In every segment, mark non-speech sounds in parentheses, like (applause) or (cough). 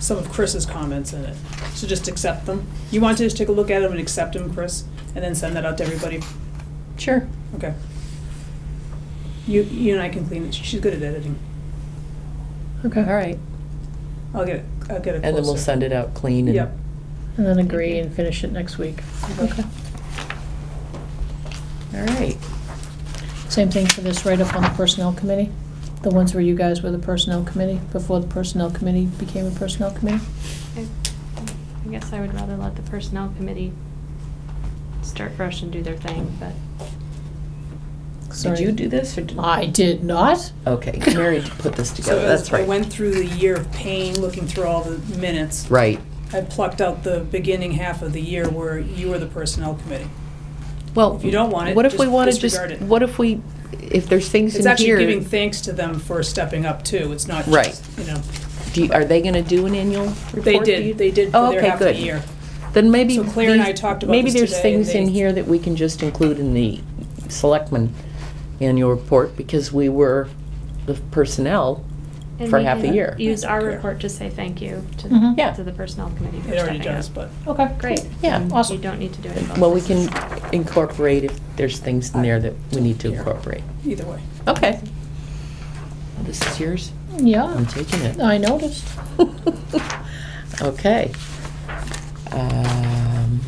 some of Chris's comments in it. So just accept them. You want to just take a look at them and accept them, Chris, and then send that out to everybody? Sure. Okay. You, you and I can clean it. She's good at editing. All Okay, right. I'll get, it. I'll get it closer. And then we'll send it out clean and. Yep. and then agree and finish it next week. Okay. All right. Same thing for this write-up on the personnel committee, the ones where you guys were the personnel committee, before the personnel committee became a personnel committee. I I guess I would rather let the personnel committee start fresh and do their thing, but Did Sorry. you do this or did? I did not. Okay, Mary put (laughs) this So together, as that's I right. went through the year of pain, looking through all the minutes, Right, I plucked out the beginning half of the year where you were the personnel committee. well. If you don't want it, What if we just wanna disregard just- it. What if we, if there's things It's in actually here, giving thanks to them for stepping up too. It's not Right. just, you know. do you- are they gonna do an annual report? They do you- did, they did Oh, for their okay, half of the good. year. Then maybe. So Claire and these- I talked about this Maybe there's today and things in they- here that we can just include in the selectmen annual report because we were the personnel. and For we half a can year. Use our Yeah. report to say thank you to, Mhm. Yeah. to the personnel committee for It already stepping up. does, but Okay. Great. Yeah. Then Awesome. You don't need to do it. Well, we can incorporate if there's things in there that we need to Here. incorporate. either way. Okay. This is yours? I'm Yeah, taking it. I noticed. Okay. Um,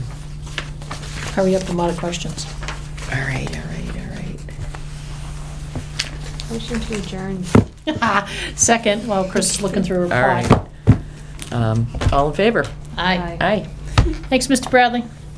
Hurry up, a lot of questions. (laughs) all right, all right, all right. Motion to adjourn. Second, while Chris is looking through a All reply. right. Um, all in favor? Aye. Aye. Thanks, Mr. Bradley.